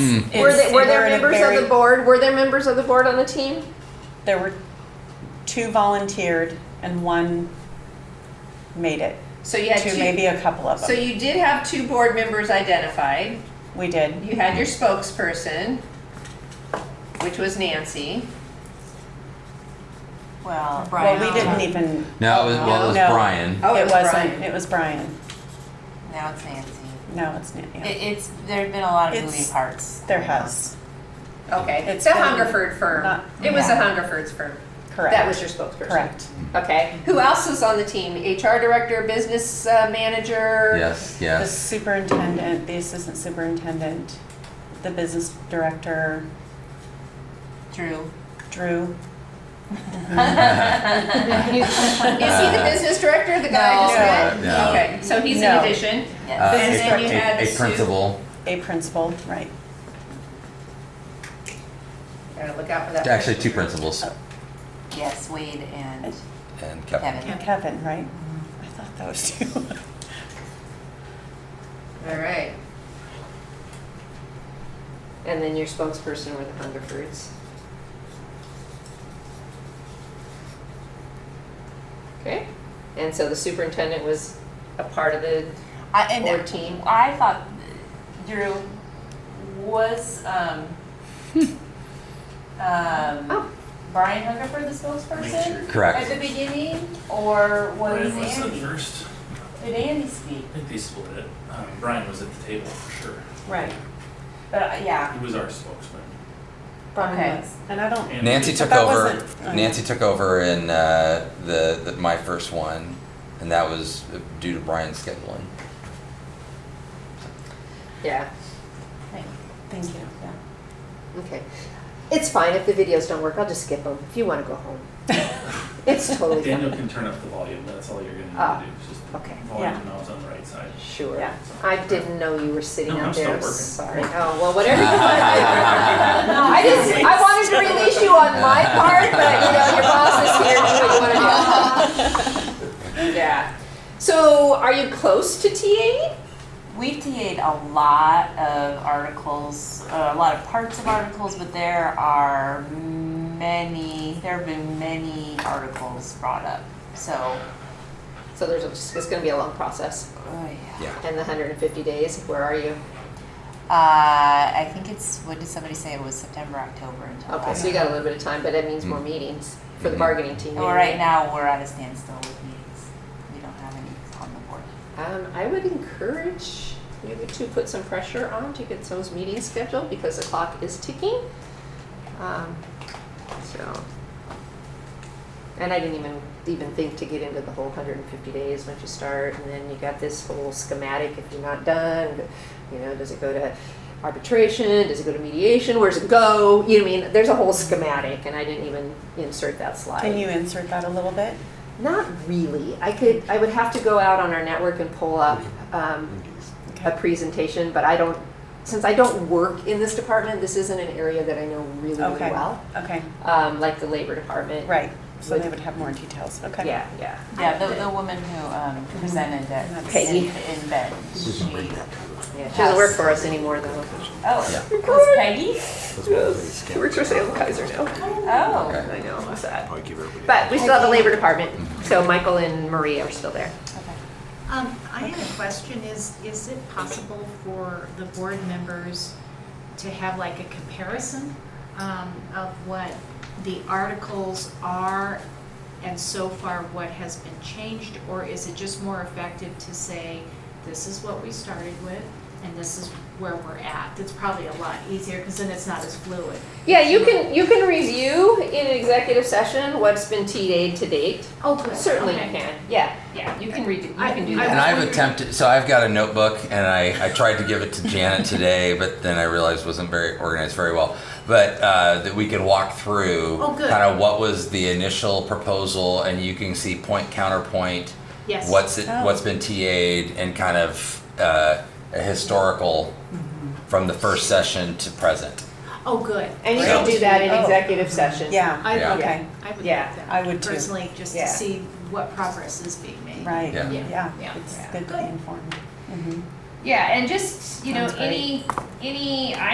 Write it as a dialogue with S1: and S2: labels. S1: Were, they,
S2: It's-
S1: were
S2: we're
S1: there
S2: in a
S1: members
S2: very-
S1: of the board? Were there members of the board on the team?
S2: There were two volunteered and one made it.
S3: So you had
S2: Two,
S3: two.
S2: maybe a couple of
S3: So
S2: them.
S3: you did have two board members identified.
S2: We did.
S3: You had your spokesperson, which was Nancy.
S4: Well,
S2: Well,
S4: Brian,
S2: we didn't even,
S5: No, it was, well, it was
S2: No.
S5: Brian.
S3: Oh, it
S2: it
S3: was
S2: wasn't,
S3: Brian.
S2: it was Brian.
S4: now it's Nancy.
S2: No, it's, not- yeah.
S4: It, it's, there've been a lot of
S2: It's-
S4: moving parts.
S2: there has,
S3: Okay, it's
S2: It's
S3: the
S2: been-
S3: Hungerford firm.
S2: Not-
S3: It was the
S4: yeah.
S3: Hungerford's firm. That
S2: correct,
S3: was your spokesperson.
S2: correct.
S3: Okay. Who else was on the team? HR director, business uh, manager?
S5: Yes,
S2: The
S5: yes.
S2: superintendent, the assistant superintendent, the business director,
S4: Drew.
S2: Drew.
S3: Is
S1: Uh,
S3: he the business director, the guy I just
S4: No.
S3: met?
S5: No.
S3: Okay, so he's an
S2: No.
S3: addition.
S5: Uh,
S2: Then-
S5: a-
S2: then
S3: you
S5: a-
S3: had
S5: a
S3: Sue.
S5: principal.
S2: A principal, right.
S3: Gotta look out for that.
S5: Actually, two principals
S4: Yes, Wade and
S5: and Kevin.
S4: Kevin.
S2: Kevin, right? I thought that was two.
S3: All right.
S1: And then your spokesperson were the Hungerfords. Okay. And so the superintendent was a part of the.
S4: I, and
S1: Or team.
S4: I thought Drew was um, um,
S1: Oh.
S4: Brian Hungerford the spokesperson at
S5: Correct.
S4: the beginning, or was
S6: Brian was the
S4: Andy?
S6: first.
S4: Did Andy speak?
S6: I think they split it. Um, Brian was at the table for sure.
S2: Right.
S4: But uh, yeah,
S6: He was our spokesman.
S4: Okay.
S2: Brian was. And I don't,
S6: And-
S5: Nancy
S2: But
S5: took
S2: that
S5: over.
S2: wasn't- oh, yeah.
S5: Nancy took over in uh, the, the my first one, and that was uh, due to Brian's scheduling.
S1: Yeah.
S2: thank you. Yeah.
S1: Okay. It's fine if the videos don't work. I'll just skip them if you want to go home. it's totally fine.
S6: Daniel can turn up the volume. That's all you're gonna need
S1: Ah,
S6: to do. is Just
S1: okay.
S6: volume
S2: Yeah.
S6: knobs on the right side.
S1: Sure.
S2: Yeah.
S1: I didn't know you were sitting
S6: No,
S1: out
S6: I'm
S1: there.
S6: still
S1: Sorry.
S6: working.
S1: Oh well, whatever. you want. I just I wanted to release you on my part, but you know your boss is here. Do what you want to do. yeah. So are you close to TA?
S4: We've TA'd a lot of articles, uh, a lot of parts of articles, but there are many, there have been many articles brought up. So,
S1: So there's just, it's going to be a long process.
S4: oh yeah.
S5: Yeah.
S1: And the 150 days. Where are you?
S4: Uh, I think it's, what did somebody say? It was September, October until.
S1: Okay, so you got a little bit of time, but that means
S6: Hmm.
S1: more meetings for the bargaining team.
S4: Well, right
S1: anyway.
S4: now, we're at a standstill with meetings. We don't have any on the board.
S1: Um, I would encourage you to put some pressure on to get those meetings scheduled because the clock is ticking. Um, so, and I didn't even, even think to get into the whole hundred and fifty days once you start, and then you got this whole schematic if you're not done, but, you know, does it go to arbitration, does it go to mediation, where's it go? You know, what I mean, there's a whole schematic, and I didn't even insert that slide.
S2: Can you insert that a little bit?
S1: Not really. I could, I would have to go out on our network and pull up um, a presentation, but I don't, since I don't work in this department, this isn't an area that I know really, really
S2: Okay.
S1: well.
S2: Okay,
S1: Um, Like the labor department.
S2: right. So they
S1: Would-
S2: would have more details. Okay.
S1: Yeah, yeah.
S4: Yeah, the, the woman who, um, presented that
S1: Peggy.
S4: in, in bed, she,
S1: She doesn't work for us anymore, though.
S4: oh,
S5: Yeah.
S4: it was Peggy?
S1: She works for Salem Kaiser now.
S4: Oh.
S5: Okay.
S1: I Mm-hmm. know, I'm sad. But we still have the labor department, so Michael and Marie are still there.
S7: Um, I had a question, is, is it possible for the board members to have like a comparison um, of what the articles are and so far what has been changed? Or is it just more effective to say, this is what we started with and this is where we're at? That's probably a lot easier because then it's not as fluid.
S1: Yeah, you can, you can review in an executive session what's been TA'd to date.
S7: Oh, good.
S1: Certainly you
S7: Okay.
S1: can, yeah, yeah, you can redo, you
S7: I-
S1: can do
S7: I
S1: that.
S5: And I've attempted, so I've got a notebook and I, I tried to give it to Janet today, but then I realized it wasn't very organized very well. But uh, that we could walk through
S7: Oh, good.
S5: kind of what was the initial proposal and you can see point counterpoint,
S7: Yes.
S5: what's it,
S2: Oh.
S5: what's been TA'd and kind of uh, a historical from the first session to present.
S7: Oh, good.
S1: And you can do that in
S2: Oh.
S1: executive session.
S2: Yeah,
S7: I would,
S5: Yeah.
S2: Okay.
S7: I would like
S1: Yeah,
S7: that.
S2: I would too.
S7: Personally, just
S1: Yeah.
S7: to see what progress is being made.
S2: right.
S5: Yeah.
S7: Yeah.
S2: Yeah,
S7: Yeah.
S2: it's
S7: Yeah.
S2: good to be informed. Mhm.
S3: Yeah, and just, you know,
S2: Sounds great.
S3: any, any